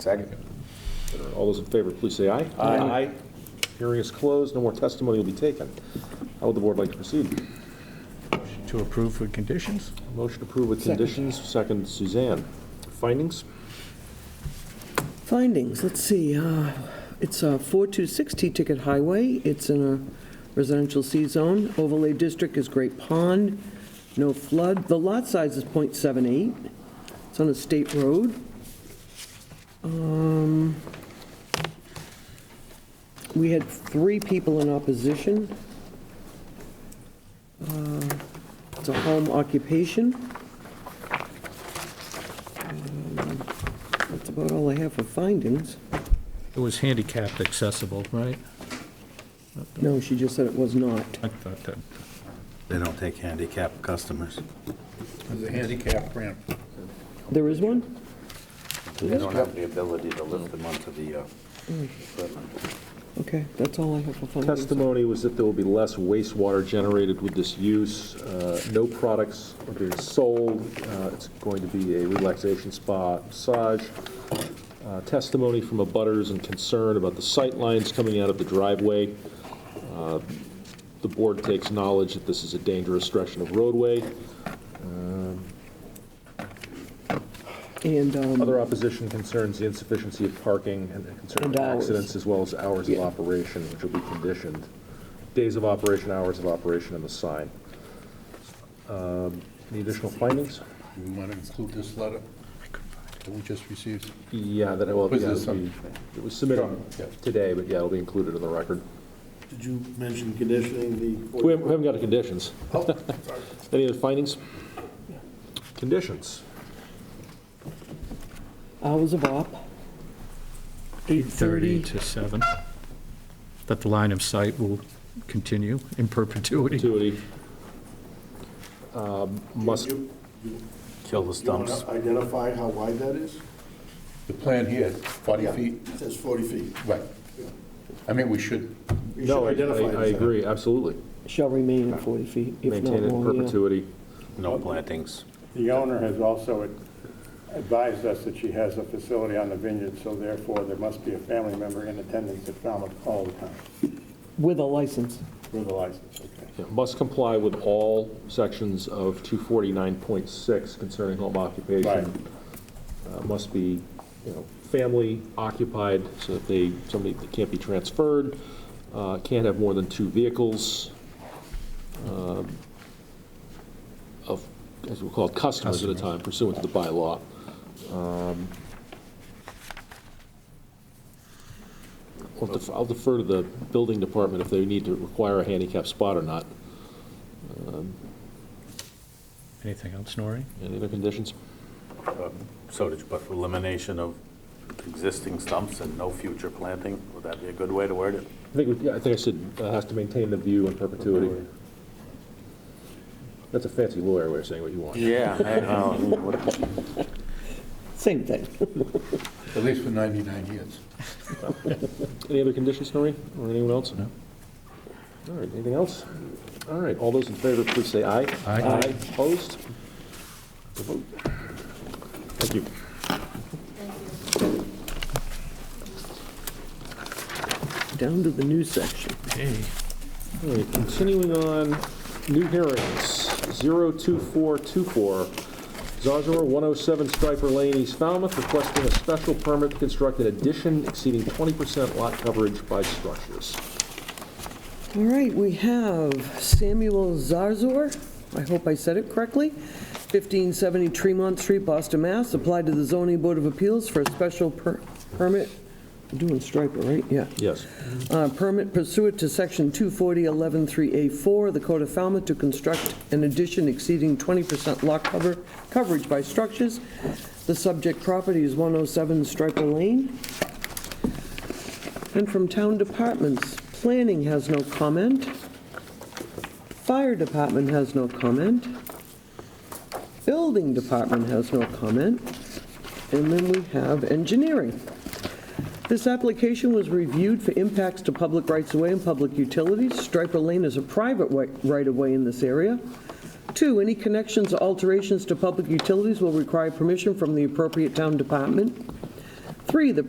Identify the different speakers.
Speaker 1: Second.
Speaker 2: All those in favor, please say aye. Aye. Hearing is closed, no more testimony will be taken. How would the board like to proceed?
Speaker 3: To approve with conditions?
Speaker 2: Motion approved with conditions, second Suzanne. Findings?
Speaker 4: Findings, let's see, uh, it's a 426 T-Ticket Highway, it's in a residential C-zone, overlay district is Great Pond, no flood, the lot size is .78, it's on a state road. Um, We had three people in opposition. Uh, It's a home occupation. That's about all I have for findings.
Speaker 3: It was handicapped accessible, right?
Speaker 4: No, she just said it was not.
Speaker 3: I thought that.
Speaker 5: They don't take handicap customers.
Speaker 6: There's a handicap ramp.
Speaker 4: There is one?
Speaker 5: They don't have the ability to lift them onto the uh, equipment.
Speaker 4: Okay, that's all I have for findings.
Speaker 2: Testimony was that there will be less wastewater generated with this use. Uh, No products are being sold. Uh, It's going to be a relaxation spa massage. Uh, Testimony from abutters and concern about the sight lines coming out of the driveway. Uh, The board takes knowledge that this is a dangerous stretch of roadway.
Speaker 4: And, um,
Speaker 2: Other opposition concerns the insufficiency of parking and the concern
Speaker 4: And
Speaker 2: of
Speaker 4: hours.
Speaker 2: accidents, as well as hours of
Speaker 4: Yeah.
Speaker 2: operation, which will be conditioned. Days of operation, hours of operation, and the sign. Um, Any additional findings?
Speaker 6: You want to include this letter that we just received?
Speaker 2: Yeah, that, well,
Speaker 6: Was
Speaker 2: yeah,
Speaker 6: this
Speaker 2: it'll be- it was submitted
Speaker 6: Sure, yeah.
Speaker 2: today, but yeah, it'll be included in the record.
Speaker 7: Did you mention conditioning the?
Speaker 2: We haven't we haven't got the conditions. Any other findings? Conditions?
Speaker 4: hours of op.
Speaker 3: 8:30
Speaker 4: 8:30.
Speaker 3: to 7. That the line of sight will continue in perpetuity.
Speaker 2: Perpetuity. Um, Must,
Speaker 7: You- you-
Speaker 5: Kill the
Speaker 7: you wanna
Speaker 5: stumps.
Speaker 7: Identify how wide that is?
Speaker 6: The plan here is 40 feet,
Speaker 7: It says 40 feet.
Speaker 6: right. I mean, we should,
Speaker 7: You should
Speaker 2: no, I-
Speaker 7: identify
Speaker 2: I I
Speaker 7: it.
Speaker 2: agree, absolutely.
Speaker 4: Shall remain at 40 feet, if not
Speaker 2: Maintain it in
Speaker 4: more, yeah.
Speaker 2: perpetuity.
Speaker 5: No plantings.
Speaker 8: The owner has also advised us that she has a facility on the vineyard, so therefore there must be a family member in attendance at Falmouth all the time
Speaker 4: With a license.
Speaker 8: with a license, okay?
Speaker 2: Yeah, Must comply with all sections of 249.6 concerning home
Speaker 8: Right.
Speaker 2: occupation. Uh, Must be, you know, family occupied, so that they, somebody that can't be transferred, uh, can't have more than two vehicles, um, of, as we call it, customers at a time pursuant to the bylaw. Um, I'll def- I'll defer to the building department if they need to require a handicap spot or not.
Speaker 3: Anything else, Norrie?
Speaker 2: Any other conditions?
Speaker 5: So did you put elimination of existing stumps and no future planting? Would that be a good way to word it?
Speaker 2: I think, we- yeah, I think I said, uh, has to maintain the view in perpetuity. That's a fancy lawyer way of saying what you want.
Speaker 5: Yeah. I know.
Speaker 4: Same thing.
Speaker 6: at least for 99 years.
Speaker 2: Any other conditions, Noreen, or anyone else? No. All right, anything else? All right, all those in favor, please say aye.
Speaker 3: Aye.
Speaker 2: Opposed? The vote. Thank you.
Speaker 4: Down to the new section.
Speaker 3: Hey.
Speaker 2: All right, continuing on, new hearings, 02424, Zazor 107 Striper oh Lane, East Falmouth, requesting a special permit to construct an addition exceeding 20% lot coverage by structures.
Speaker 4: All right, we have Samuel Zarzor, I hope I said it correctly, 1570 Tremont Street, Boston, Mass., applied to the zoning board of appeals for a special per- permit, We're doing striper, right? Yeah.
Speaker 2: Yes.
Speaker 4: Uh, Permit pursuant to Section 240.113A4 of the Code of Falmouth to construct an addition exceeding 20% lot cover, coverage by structures. The subject property is 107 Striper Lane. And from town departments, planning has no comment. Fire department has no comment. Building department has no comment. And then we have engineering. This application was reviewed for impacts to public rights-of-way and public utilities. Striper Lane is a private wa- right-of-way in this area. Two, any connections or alterations to public utilities will require permission from the appropriate town department. Three, the